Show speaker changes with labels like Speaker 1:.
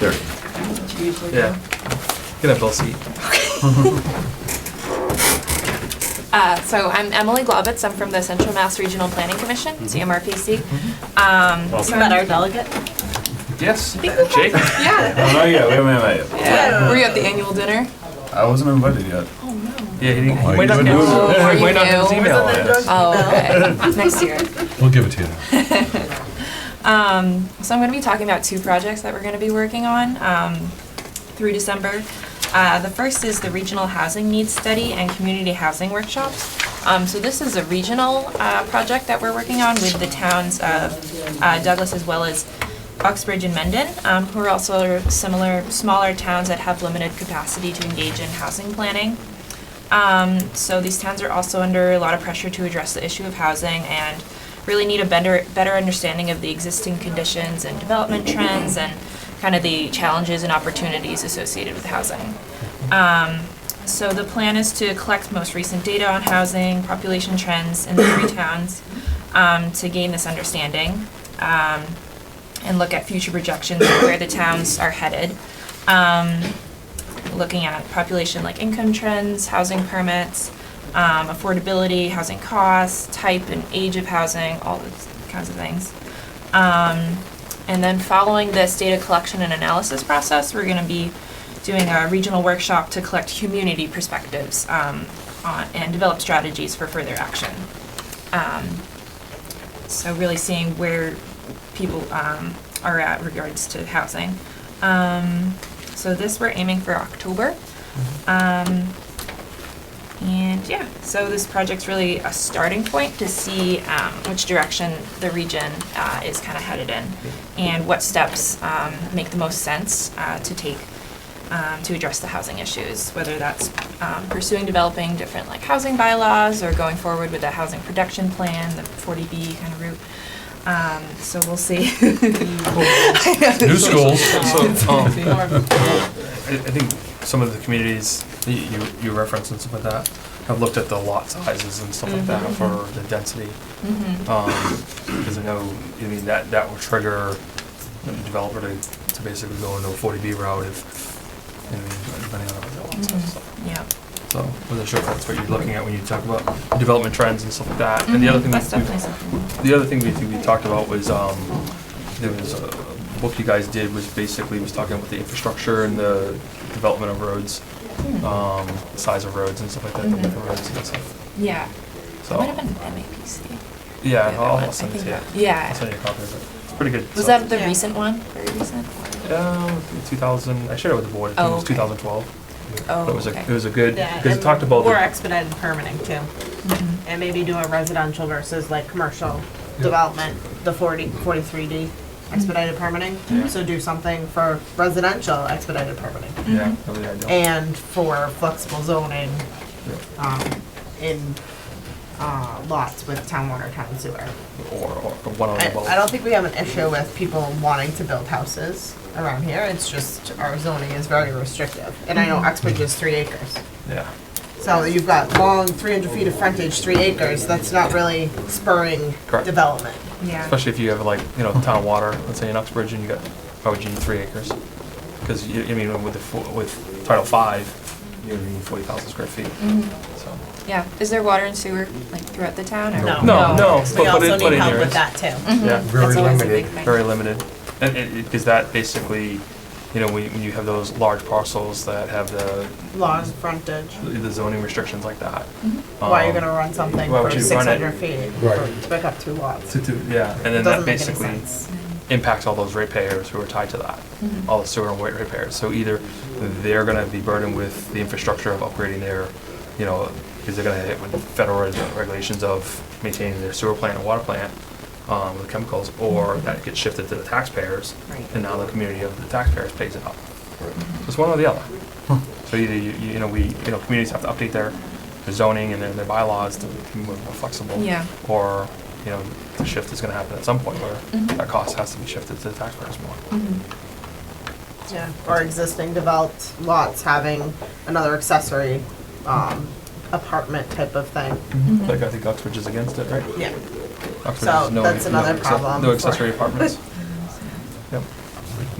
Speaker 1: There.
Speaker 2: Yeah. Get a bill seat.
Speaker 3: Uh, So I'm Emily Globitz, I'm from the Central Mass Regional Planning Commission, CMRPC. Um,
Speaker 4: Is that our delegate?
Speaker 2: Yes.
Speaker 3: think
Speaker 2: Jake?
Speaker 3: Yeah,
Speaker 1: Oh, yeah, wait a minute, wait a minute.
Speaker 3: Yeah. were you at the annual dinner?
Speaker 1: I wasn't invited yet.
Speaker 2: Yeah, he didn't.
Speaker 1: Oh,
Speaker 2: might
Speaker 1: you
Speaker 2: not
Speaker 1: would
Speaker 2: get-
Speaker 1: lose it.
Speaker 3: Oh,
Speaker 2: might not get his
Speaker 3: you
Speaker 2: email.
Speaker 3: Oh, okay, next year.
Speaker 5: We'll give it to you.
Speaker 3: Um, so I'm going to be talking about two projects that we're going to be working on um, through December. Uh, the first is the Regional Housing Needs Study and Community Housing Workshops. Um, so this is a regional uh, project that we're working on with the towns of uh, Douglas as well as Uxbridge and Mendon, um, who are also similar, smaller towns that have limited capacity to engage in housing planning. Um, so these towns are also under a lot of pressure to address the issue of housing and really need a better, better understanding of the existing conditions and development trends and kind of the challenges and opportunities associated with housing. Um, so the plan is to collect most recent data on housing, population trends in the three towns um, to gain this understanding. Um, and look at future projections of where the towns are headed. Um, looking at population like income trends, housing permits, um, affordability, housing costs, type and age of housing, all those kinds of things. Um, and then following this data collection and analysis process, we're gonna be doing a regional workshop to collect community perspectives, um, on, and develop strategies for further action. Um, so really seeing where people um, are at regards to housing. Um, so this we're aiming for October. Um, and yeah, so this project's really a starting point to see um, which direction the region uh, is kind of headed in and what steps um, make the most sense uh, to take um, to address the housing issues, whether that's um, pursuing developing different like housing bylaws or going forward with the housing production plan, the 40B kind of route. Um, so we'll see.
Speaker 5: New schools.
Speaker 2: So, um, I, I think some of the communities that you, you reference and stuff like that have looked at the lot sizes and stuff like
Speaker 3: Mm-hmm.
Speaker 2: that for the density. Oh. Because I know, I mean, that, that will trigger the developer to, to basically go into a forty B route if, you know, depending on what the lot size is.
Speaker 3: Mm-hmm. yeah.
Speaker 2: So, wasn't sure if that's what you're looking at when you talk about development trends and stuff like that. And the other thing
Speaker 3: Mm-hmm. That's
Speaker 2: that we-
Speaker 3: definitely something.
Speaker 2: the other thing we, we talked about was, um, there was a book you guys did was basically was talking about the infrastructure and the development of roads, um, size of roads and stuff like that, the width
Speaker 3: Mm-hmm.
Speaker 2: of roads and stuff.
Speaker 3: Yeah. It might have
Speaker 2: So,
Speaker 3: been MAPC.
Speaker 2: yeah,
Speaker 3: the other
Speaker 2: I'll
Speaker 3: one,
Speaker 2: I'll
Speaker 3: I
Speaker 2: send it
Speaker 3: think
Speaker 2: to you.
Speaker 3: that-
Speaker 2: I'll
Speaker 3: Yeah.
Speaker 2: send you a copy of it. It's pretty good.
Speaker 3: Was
Speaker 2: so-
Speaker 3: that the
Speaker 4: Yeah.
Speaker 3: recent one? Very recent?
Speaker 2: Um, two thousand, I shared it with the board, I think
Speaker 3: Oh,
Speaker 2: it was
Speaker 3: okay.
Speaker 2: two thousand twelve.
Speaker 3: Oh,
Speaker 2: It was a,
Speaker 3: okay.
Speaker 2: it was a good,
Speaker 4: Yeah,
Speaker 2: because it
Speaker 4: and
Speaker 2: talked about the
Speaker 4: More expedited permitting too.
Speaker 3: Mm-hmm.
Speaker 4: And maybe do a residential versus like commercial development, the 40, 43D expedited permitting. So do something for residential expedited permitting
Speaker 2: Yeah,
Speaker 4: Mm-hmm.
Speaker 2: that was the idea.
Speaker 4: and for flexible zoning um, in uh, lots with town water, town sewer.
Speaker 2: Or, or one on
Speaker 4: I,
Speaker 2: the boat.
Speaker 4: I don't think we have an issue with people wanting to build houses around here. It's just our zoning is very restrictive. And I know Uxbridge is three acres.
Speaker 2: Yeah.
Speaker 4: So you've got long, 300 feet of frontage, three acres, that's not really spurring
Speaker 2: Correct.
Speaker 4: development.
Speaker 3: Yeah.
Speaker 2: Especially if you have like, you know, town water, let's say in Uxbridge, and you got, why would you need three acres? Because you, I mean, with the, fo- with Title Five, you need forty thousand square feet, so.
Speaker 3: Mm-hmm. Yeah. Is there water and sewer like throughout the town or? Mm-hmm.
Speaker 2: No,
Speaker 4: No.
Speaker 2: no, but
Speaker 4: We
Speaker 2: put
Speaker 4: also
Speaker 2: it, put
Speaker 4: need
Speaker 2: in
Speaker 4: help with
Speaker 2: yours.
Speaker 4: that too.
Speaker 2: Yeah,
Speaker 5: Very
Speaker 3: That's always a
Speaker 5: limited.
Speaker 3: big thing.
Speaker 2: very limited. And it, because that basically, you know, when, when you have those large parcels that have the,
Speaker 4: Laws, frontage,
Speaker 2: the zoning restrictions like that.
Speaker 4: why you're
Speaker 2: um,
Speaker 4: gonna run something
Speaker 2: why would
Speaker 4: for
Speaker 2: you run it?
Speaker 4: 600 feet,
Speaker 5: Right.
Speaker 4: for- pick up two lots?
Speaker 2: To,
Speaker 4: It
Speaker 2: do, yeah, and then that
Speaker 4: doesn't make any
Speaker 2: basically.
Speaker 4: sense.
Speaker 2: impacts all those ratepayers who are tied to that,
Speaker 3: Mm-hmm.
Speaker 2: all the sewer and water ratepayers. So either they're going to be burdened with the infrastructure of upgrading their, you know, because they're going to hit with federal reg- regulations of maintaining their sewer plant and water plant um, with chemicals, or that gets shifted to the taxpayers,
Speaker 3: Right.
Speaker 2: and now the community of the taxpayers pays it up. So it's one or the other. So either you, you know we you know communities have to update their, their zoning and their, their bylaws to be more more flexible.
Speaker 3: Yeah.
Speaker 2: Or you know the shift is going to happen at some point where
Speaker 3: Mhm.
Speaker 2: that cost has to be shifted to the taxpayers more.
Speaker 3: Mm-hmm.
Speaker 4: Yeah, or existing developed lots having another accessory um, apartment type of thing.
Speaker 2: Like I think Uxbridge is against it, right?
Speaker 4: Yeah.
Speaker 2: Uxbridge
Speaker 4: So
Speaker 2: is no-
Speaker 4: that's
Speaker 2: no
Speaker 4: another
Speaker 2: acce-
Speaker 4: problem
Speaker 2: No
Speaker 4: for-
Speaker 2: accessory apartments.